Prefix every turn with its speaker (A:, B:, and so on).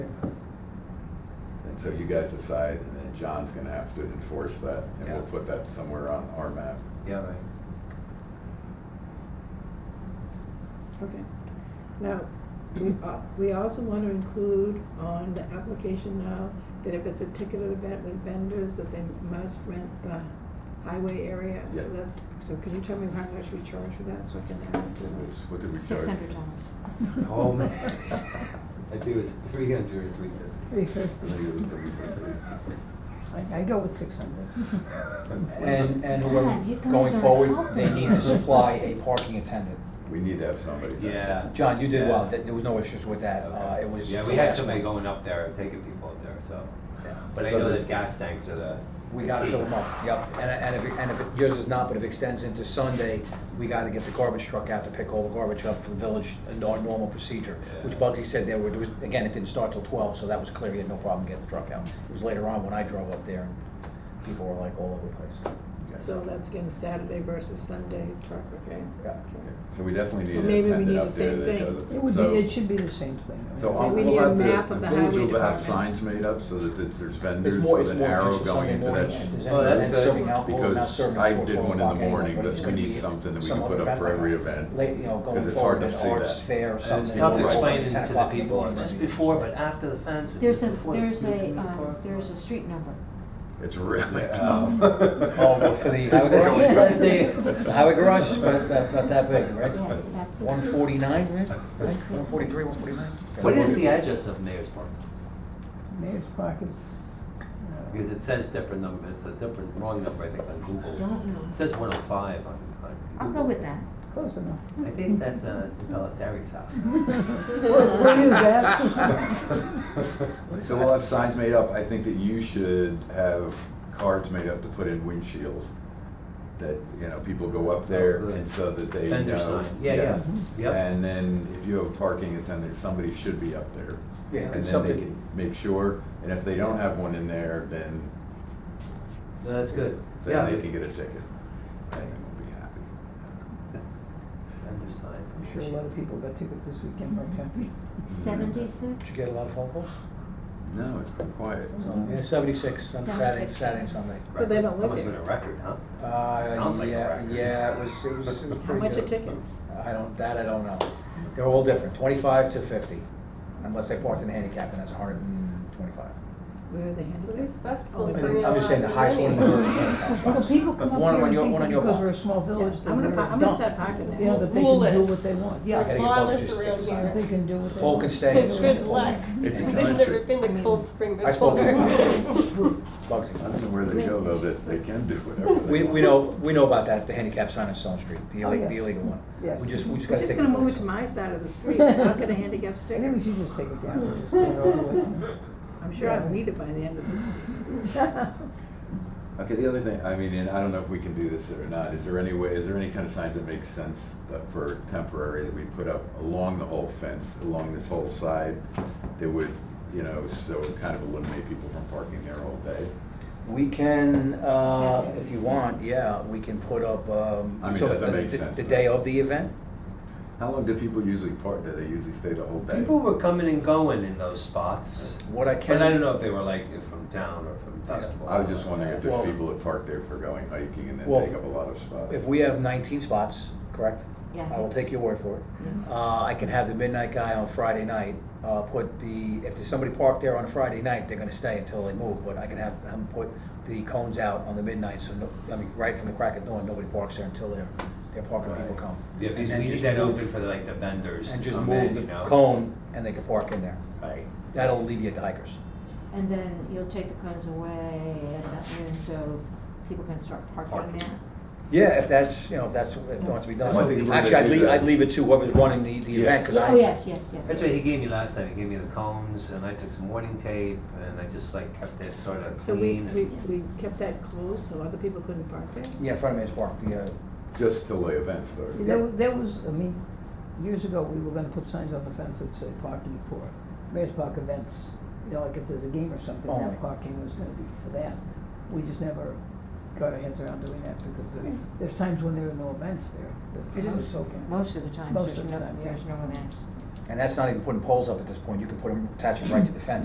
A: So you guys decide, and then John's gonna have to enforce that, and we'll
B: Yeah.
A: put that somewhere on our map.
B: Yeah, right.
C: Okay. Now, we, uh, we also want to include on the application now that if it's a ticketed event with vendors, that they must rent the highway area.
A: Yeah.
C: So that's, so can you tell me how much we charge for that, so I can add it to
A: What was-
C: the-
A: What did we charge?
D: Six hundred dollars.
B: Oh, man. I think it was three hundred or three fifty.
E: Three
A: I
E: fifty.
A: think it was $350.
E: I, I go with six hundred.
F: And, and whoever,
D: God, you guys
F: going
D: are
F: forward,
D: helping.
F: they need to supply a parking attendant.
A: We need to have somebody.
B: Yeah.
F: John, you did well,
B: Yeah.
F: Th- there was no issues with that, uh, it was.
B: Yeah, we had somebody going up there, taking people up there, so. But I
A: So
B: know
A: there's-
B: that gas tanks are the.
F: We gotta fill them up, yep, and, and if, and if it- yours is not, but if it extends into Sunday, we gotta get the garbage truck out to pick all the garbage up for the village, and our normal procedure, which
B: Yeah.
F: Bugsy said there were, there was, again, it didn't start till twelve, so that was clear, he had no problem getting the truck out. It was later on when I drove up there, and people were like all over the place.
C: So that's again Saturday versus Sunday truck, okay?
F: Yeah.
C: Okay.
A: So we definitely need
C: Well,
A: an
C: maybe we
A: attendant
C: need
A: up
C: the
A: there
C: same
A: that
C: thing.
A: does
E: It would
A: So-
E: be, it should be the same thing. right?
A: So I'll-
C: We
A: we'll
C: need a
A: have
C: map
A: the,
C: of
A: the
C: the
A: village
C: highway
A: will have
C: department.
A: signs made up so that it's- there's
F: It's
A: vendors
F: more-
A: with
F: it's
A: an
F: more
A: arrow
F: just a
A: going
F: Sunday
A: into
F: morning,
A: that.
F: if there's
A: sh-
F: any
B: Oh, that's
F: event
B: good.
F: serving alcohol, not
A: Because
F: serving
A: I
F: before
A: did
F: 12
A: one in the
F: o'clock anyway,
A: morning
F: but
A: that
F: it's
A: we
F: gonna
A: need
F: be
A: something that we
F: some
A: can
F: other
A: put up for
F: event
A: every
F: like
A: event.
F: Late, you know,
A: Because
F: going
A: it's hard
F: forward,
A: to
F: an
A: see
F: arts
A: that.
F: fair or
B: And
F: something.
B: it's tough
F: Or
B: explaining to
F: 10
B: the
F: o'clock in
B: people
F: morning.
B: just before, but after the fence. it's
D: There's a,
B: before the-
D: there's a,
B: the
D: um,
B: park.
D: there's a street number.
A: It's really
B: Um,
A: tough.
F: Oh, but for
B: It's
F: the highway garage?
B: only Friday.
F: The highway garage is about that, about that big, right?
D: Yes, about this.
F: One forty-nine, right? One forty-three, one forty-nine?
B: What is the address of Mayor's Park?
E: Mayor's Park is, uh,
B: Because it says different number, it's a different, wrong number, I think, on Google.
D: Don't know.
B: It says one oh five on, on Google.
D: I'll go with that.
E: close enough.
B: I think that's, uh, Pelletari's house.
E: We'll we'll use that.
A: So we'll have signs made up. I think that you should have cards made up to put in windshields. That, you know, people go up there
B: the
A: and so that they know.
B: Vendor sign, yeah, yeah,
A: Yes.
B: yep.
A: And then if you have a parking attendant, somebody should be up there.
F: Yeah,
A: And then they
F: something-
A: can make sure, and if they don't have one in there, then,
B: No, That's good, yeah.
A: then they can get a ticket. And we'll be happy.
B: Vendor sign.
E: I'm sure a lot of people got tickets this weekend, right, Kathy?
F: Did
D: Seventy-six?
F: you get a lot of phone calls?
A: No, it's been quiet.
F: So, Yeah, seventy-six on Saturday,
D: 76.
F: Saturday and Sunday.
C: But they
B: That
C: don't live
B: must have
C: there.
B: been a record, huh?
F: Uh,
B: Sounds like a
F: yeah,
B: record.
F: Yeah, it was, it was, it was pretty good.
C: How much a ticket?
F: I don't, that I don't know. They're all different, twenty-five to fifty, unless they parked in handicap, and that's hundred and twenty-five.
C: Where are they
G: So
C: handling
G: these festivals
C: I
F: I'm
C: mean,
G: bring a lot of money.
F: I'm just saying the highest one. in the village is $25.
E: Well, people come
F: One
E: up
F: on
E: here and
F: your- one
E: think that
F: on your
E: because
F: block.
E: we're a small
C: Yeah,
E: village, that
C: I'm gonna
E: we're
C: pa- I'm gonna
E: dumb.
C: start parking there.
E: You know, that they
G: Rule
E: can do
G: is-
E: what they want.
F: Yeah, I gotta get
G: Lawless
F: Bugsy to
G: around
F: sign
G: here.
F: it.
E: They can do what they
F: Paul
E: want.
F: can stay.
E: They can do
G: Good
E: what they
A: It's
G: luck.
A: a
G: I've
A: country.
G: never been to Cold Spring
F: I spoke to
G: before.
A: I
F: Bugsy.
A: don't know where they go though, that they can do whatever. they
F: We, we
A: want.
F: know, we know about that, the handicap sign on Stone Street, the
E: Oh,
F: illegal, the
E: yes.
F: illegal one.
E: Yes.
F: We just, we just
C: We're
F: gotta
C: just
F: take.
C: gonna move it to my side of the street, I'll get a handicap
E: I think we
C: sticker.
E: should just take it down. and just get it over with.
C: I'm sure I'll need it by the end of this.
A: Okay, the other thing, I mean, and I don't know if we can do this or not, is there any way, is there any kind of signs that make sense that for temporary that we put up along the whole fence, along this whole side, that would, you know, so kind of eliminate people from parking there all day?
F: We can, uh, if you want, yeah, we can put up, um.
A: I mean,
F: so
A: does that
F: the-
A: make
F: the-
A: sense?
F: The day of the event?
A: How long do people usually park? Do they usually stay the whole day?
B: People were coming and going in those spots.
F: What I can.
B: But I don't know if they were like from town or from festival.
A: I was just wondering if
F: Well-
A: there's people that park there for going hiking and then
F: Well,
A: take up a lot of spots.
F: If we have nineteen spots, correct?
D: Yeah.
F: I will take your word for it.
D: Mhm.
F: Uh, I can have the midnight guy on Friday night, uh, put the, if there's somebody parked there on a Friday night, they're gonna stay until they move, but I can have him put the cones out on the midnight, so no, I mean, right from the crack of dawn, nobody parks there until their, their parking people come.
B: Yeah, because
F: And
B: we
F: then
B: need
F: just
B: that
F: move-
B: open for like the vendors
F: And
B: to
F: just
B: come
F: move
B: in, you
F: the
B: know?
F: cone, and they can park in there.
B: Right.
F: That'll alleviate the hikers.
D: And then you'll take the cones away at that noon, so people can start parking
B: Parking.
D: there.
F: Yeah, if that's, you know, if that's, if it wants to be done.
A: Well, I think we're
F: Actually,
A: gonna
F: I'd
A: do
F: leave,
A: that.
F: I'd leave it to whoever's running the, the
A: Yeah.
F: event, cause
D: Yeah,
F: I.
D: Oh, yes, yes, yes.
B: That's what he gave me last time, he gave me the cones, and I took some warning tape, and I just like kept it sort of
C: So we,
B: clean.
C: we,
B: and-
C: we kept that closed, so other people couldn't park there?
F: Yeah, in front of me is parked, the, uh,
A: Just till the event starts.
E: There, there was, I mean, years ago, we were gonna put signs on the fence that said parking for Mayor's Park events. You know, like if there's a game or something,
F: Only.
E: that parking was gonna be for that. We just never got our heads around doing that because there- there's times when there are no events there. that
C: It is-
E: it's open.
D: Most of the time,
E: Most
D: there's
E: of
D: no,
E: the time, yeah.
D: there's no events.
F: And that's not even putting poles up at this point, you can put them, attach them right to the fence.